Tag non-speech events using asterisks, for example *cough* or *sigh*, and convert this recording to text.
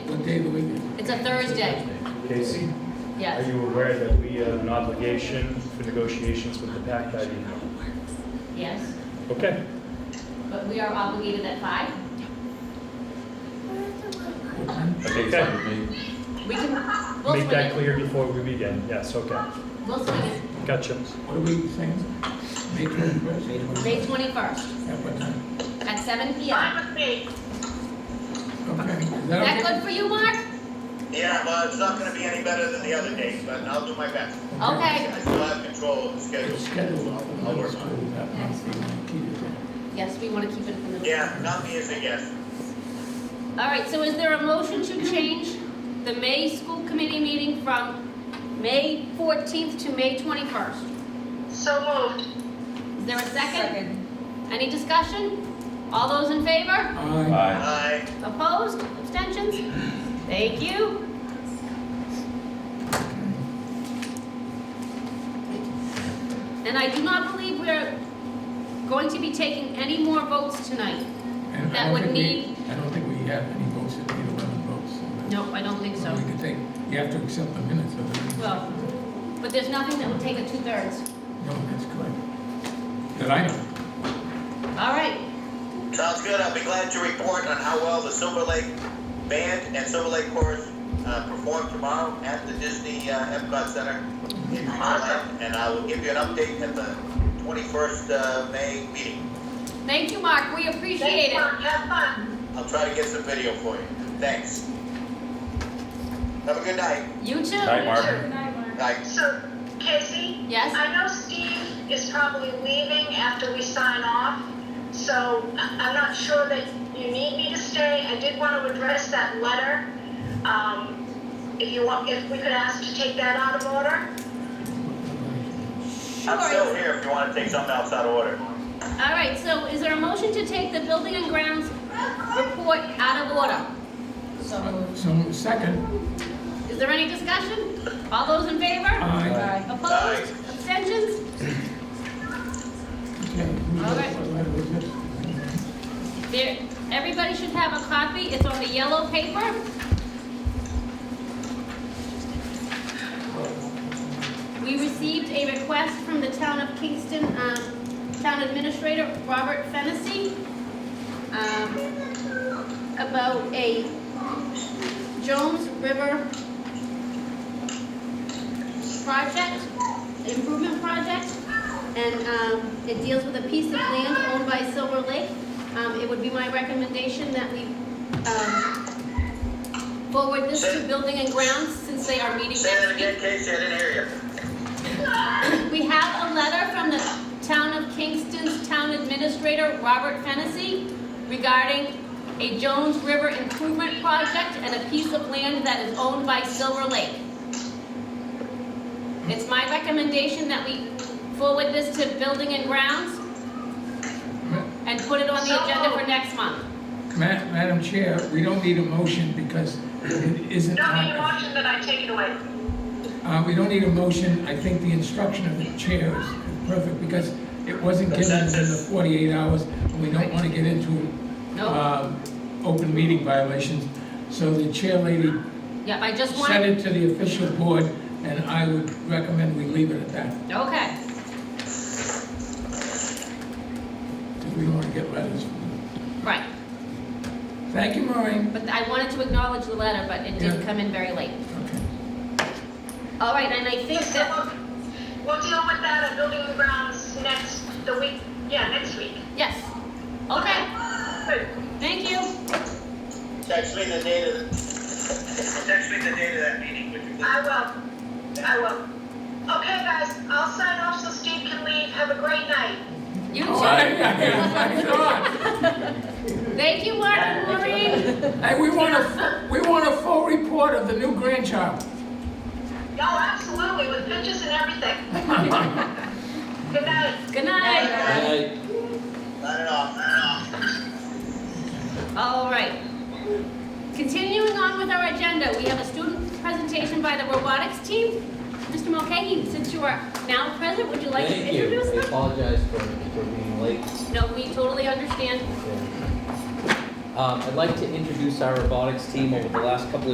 a Thursday, Casey, are yes. you aware that we have an obligation for negotiations with the PAC by the Yes, Okay, but we are obligated at five? okay. We can, we'll Make swing that it. clear before we begin. Yes, okay. We'll swing it. Gotcha. What are we saying? May twenty-first, May twenty-first? May twenty-first At what time? at seven P M. Okay. Is Is that okay? good for you, Mark? Yeah, well, it's not gonna be any better than the other days, but I'll do my best. Okay, I still have control of the schedule. It's scheduled off of I'll the work on school that month, we want to keep it there. yes, we wanna keep it in the middle. Yeah, nothing is a yes. All right, so is there a motion to change the May school committee meeting from May fourteenth to May twenty-first? So uh, moved. Is there a second? Any discussion? All those in favor? Aye. Aye. Opposed? Abstentions? Thank you. And I do not believe we're going to be taking any more votes tonight. And I That don't would think we- need- I don't think we have any votes, if we need eleven votes. so- No, I don't think So so. we could take, you have to accept the minutes of the. Well, but there's nothing that will take a two-thirds. No, that's correct. That I know. All right, Sounds good. I'll be glad to report on how well the Silver Lake Band and Silver Lake Chorus uh, perform tomorrow at the Disney uh, Epcot Center in Holland, and I will give you an update at the 21st uh, May meeting. thank you, Mark, we appreciate it. Thanks, Mark. Have fun. I'll try to get some video for you. Thanks. Have a good night. You too. Night, Mark. Bye. So, Casey? Yes? I know Steve is probably leaving after we sign off, so I- I'm not sure that you need me to stay. I did want to address that letter. Um, If you want, if we could ask to take that out of order? I'm Sure. still here if you want to take something else out of order. All right, so is there a motion to take the building and grounds report out of order? So, second, Is there any discussion? All those in favor? aye. Aye. Opposed? Abstentions? Okay. who All else? right. What letter was this? There, everybody should have a copy, it's on the yellow paper. We received a request from the town of Kingston, um, town administrator, Robert Fennessy, um, about a Jones River project, improvement project, and, um, it deals with a piece of land owned by Silver Lake. Um, it would be my recommendation that we, um, forward this to Building and Grounds, since they are meeting Say that next week. again, Casey, I didn't hear you. We have a letter from the town of Kingston's town administrator, Robert Fennessy, regarding a Jones River improvement project and a piece of land that is owned by Silver Lake. It's my recommendation that we forward this to Building and Grounds and put it on the agenda for next month. Ma- Madam Chair, we don't need a motion because it isn't. No, on- need a motion that I take it away. Uh, we don't need a motion, I think the instruction of the chair is perfect, because it wasn't given in the Consensus. forty-eight hours, and we don't wanna get into, No. um, open meeting violations. So the chair lady Yep, I just sent wanted, it to the official board, and I would recommend we leave it at that, okay. because we don't wanna get letters. from Right, them. Thank you, Maureen. but I wanted to acknowledge the letter, but it did Yeah. come in very late. Okay. *laughs* All right, and I think So that, we'll- We'll deal with that at Building and Grounds next, the week, yeah, next week. yes, okay, Good. thank you. Text me the date of, text me the date of that meeting, would you please? I will. I will. Okay, guys, I'll sign off so Steve can leave. Have a great night. You Oh, I- *laughs* I- I too. forgot. Thank you, Mark and Maureen. Hey, we want a, fu- we want a full report of the new grandchild. Y'all, absolutely, with pictures and everything. Good night. Good night. Not at all, not at all. All right. Continuing on with our agenda, we have a student presentation by the robotics team. Mr. Mulcahy, since you are now present, would you like to Thank you. introduce I them? apologize for, for being late. No, we totally understand. Um, I'd like to introduce our robotics team over the last couple of